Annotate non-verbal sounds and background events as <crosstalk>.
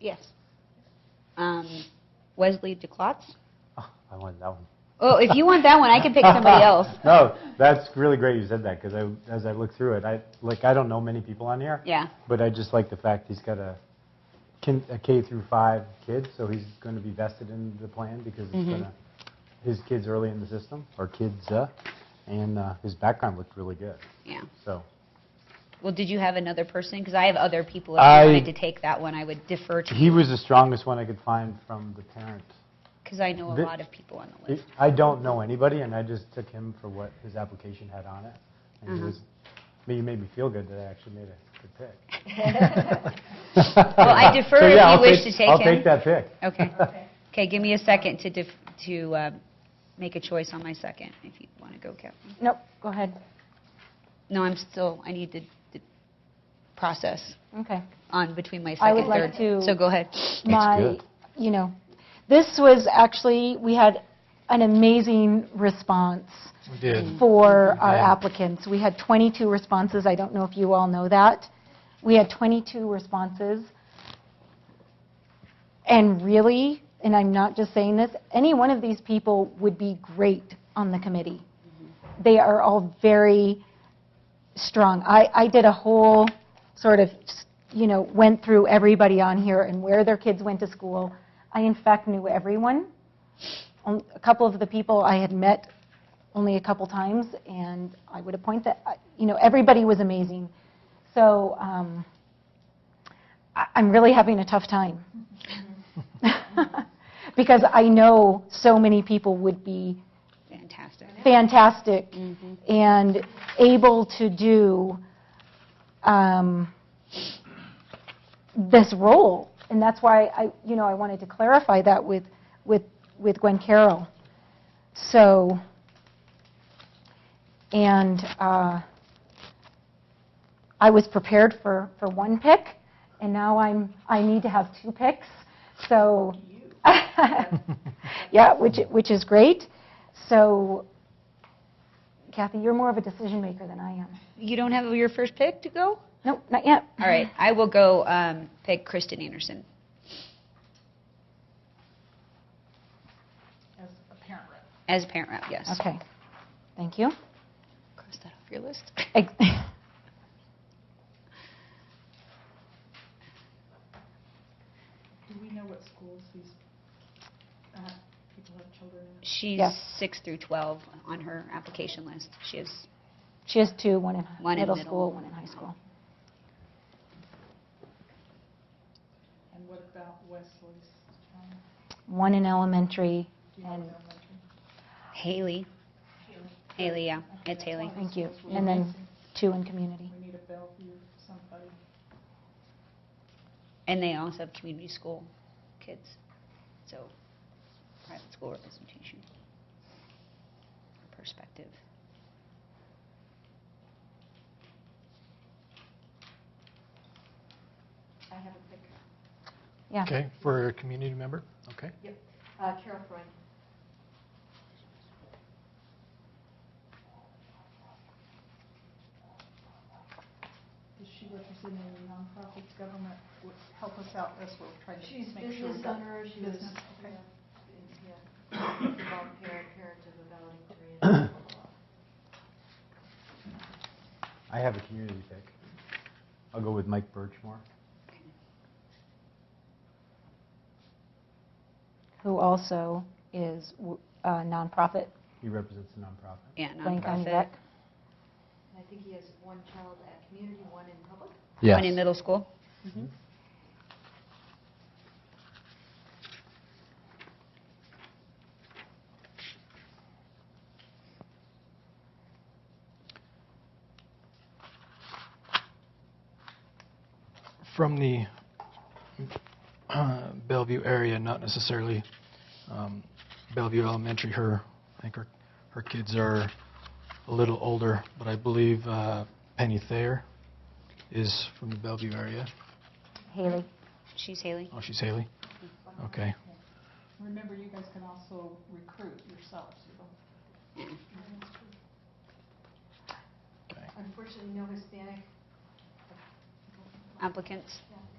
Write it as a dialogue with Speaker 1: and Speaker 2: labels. Speaker 1: Yes. Um, Wesley DeClotz?
Speaker 2: Oh, <laughs> I want that one.
Speaker 1: Oh, if you want that one, I can pick
Speaker 3: <laughs>
Speaker 1: somebody else.
Speaker 2: No, that's really great you said that because I, as I look through it, I like I don't know many people on here.
Speaker 1: Yeah.
Speaker 2: But I just like the fact he's got a, kin, a K through five kid, so he's going to be vested in the plan because it's gonna, his kids early in the system or kids, uh, and uh, his background looked really good.
Speaker 1: Yeah.
Speaker 2: So
Speaker 1: Well, did you have another person? Because I have other people. If
Speaker 2: I-
Speaker 1: you wanted to take that one, I would defer to
Speaker 2: he
Speaker 1: you
Speaker 2: was the strongest one I could find from the parent.
Speaker 1: because I know a
Speaker 2: the-
Speaker 1: lot of people on the
Speaker 2: It,
Speaker 1: list.
Speaker 2: I don't know anybody, and I just took him for what his application had on it. And he
Speaker 1: Uh-huh.
Speaker 2: was, but you made me feel good that I actually made a good pick.
Speaker 1: Well, I
Speaker 2: <laughs> So,
Speaker 1: defer
Speaker 2: yeah, I'll
Speaker 1: if you wish to
Speaker 2: take-
Speaker 1: take him.
Speaker 2: I'll take that pick. <laughs>
Speaker 1: Okay. Okay, give me a second to def- to uh, make a choice on my second, if you want to go, Kathleen.
Speaker 3: Nope, go ahead.
Speaker 1: No, I'm still, I need to to process
Speaker 3: Okay.
Speaker 1: on between my
Speaker 3: I
Speaker 1: second
Speaker 3: would
Speaker 1: and
Speaker 3: like
Speaker 1: third.
Speaker 3: to-
Speaker 1: So go ahead.
Speaker 3: My,
Speaker 2: good.
Speaker 3: you know, this was actually, we had an amazing response
Speaker 4: We did.
Speaker 3: for our applicants. We had 22 responses. I don't know if you all know that. We had 22 responses. And really, and I'm not just saying this, any one of these people would be great on the committee. They are all very strong. I, I did a whole sort of, you know, went through everybody on here and where their kids went to school. I in fact knew everyone. On- A couple of the people I had met only a couple times, and I would appoint that, I- you know, everybody was amazing. So um, I- I'm really having a tough time. <laughs> Because I know so many people would be
Speaker 1: Fantastic.
Speaker 3: fantastic and able to do um, this role. And that's why I, you know, I wanted to clarify that with, with, with Gwen Carroll. So, and uh, I was prepared for, for one pick, and now I'm, I need to have two picks, so. <laughs>
Speaker 1: Mm.
Speaker 3: Yeah, which, which is great. So Kathy, you're more of a decision maker than I am.
Speaker 1: You don't have your first pick to go?
Speaker 3: Nope, not yet.
Speaker 1: All right, I will go um, pick Kristen Anderson. As a parent rep. As a parent rep, yes.
Speaker 3: Okay, thank you.
Speaker 1: Cross that off your list.
Speaker 3: Ex- <laughs>
Speaker 5: Do we know what schools these uh, people have children in?
Speaker 1: She's
Speaker 3: Yes.
Speaker 1: 6 through 12 on her application list. She is,
Speaker 3: She has two, one in
Speaker 1: One in
Speaker 3: middle
Speaker 1: middle.
Speaker 3: school, one in high school.
Speaker 5: And what about Wesley's? um,
Speaker 3: One in elementary,
Speaker 5: do you know
Speaker 3: and,
Speaker 5: their elementary?
Speaker 1: Haley. Haley, yeah, it's Haley.
Speaker 3: thank you, and then two in community.
Speaker 5: We need a Bellevue somebody.
Speaker 1: And they also have community school kids, so private school representation. Perspective.
Speaker 5: I have a pick.
Speaker 3: Yeah.
Speaker 4: Okay, for a community member, okay.
Speaker 5: Uh, Carol Freund. Is she representing the nonprofits, government? Would Help us out, that's what we're trying
Speaker 6: She's
Speaker 5: to make sure.
Speaker 6: business owner, she was,
Speaker 5: Business, okay.
Speaker 6: yeah, volunteer parent of a valedictorian.
Speaker 2: I have a community pick. I'll go with Mike Birchmore.
Speaker 3: Who also is w- a nonprofit,
Speaker 2: He represents a nonprofit.
Speaker 1: Yeah,
Speaker 3: Blaine County
Speaker 1: nonprofit.
Speaker 3: Rec.
Speaker 6: And I think he has one child at community, one in public.
Speaker 1: One in middle school. Mm-hmm.
Speaker 4: From the uh, Bellevue area, not necessarily um, Bellevue Elementary, her, I think her, her kids are a little older, but I believe uh, Penny Thayer is from the Bellevue area.
Speaker 3: Haley.
Speaker 1: She's Haley.
Speaker 4: Oh, she's Haley? Okay.
Speaker 5: Remember, you guys can also recruit yourselves, you don't
Speaker 4: okay.
Speaker 6: Unfortunately, no Hispanic.
Speaker 1: Applicants.
Speaker 6: Yeah.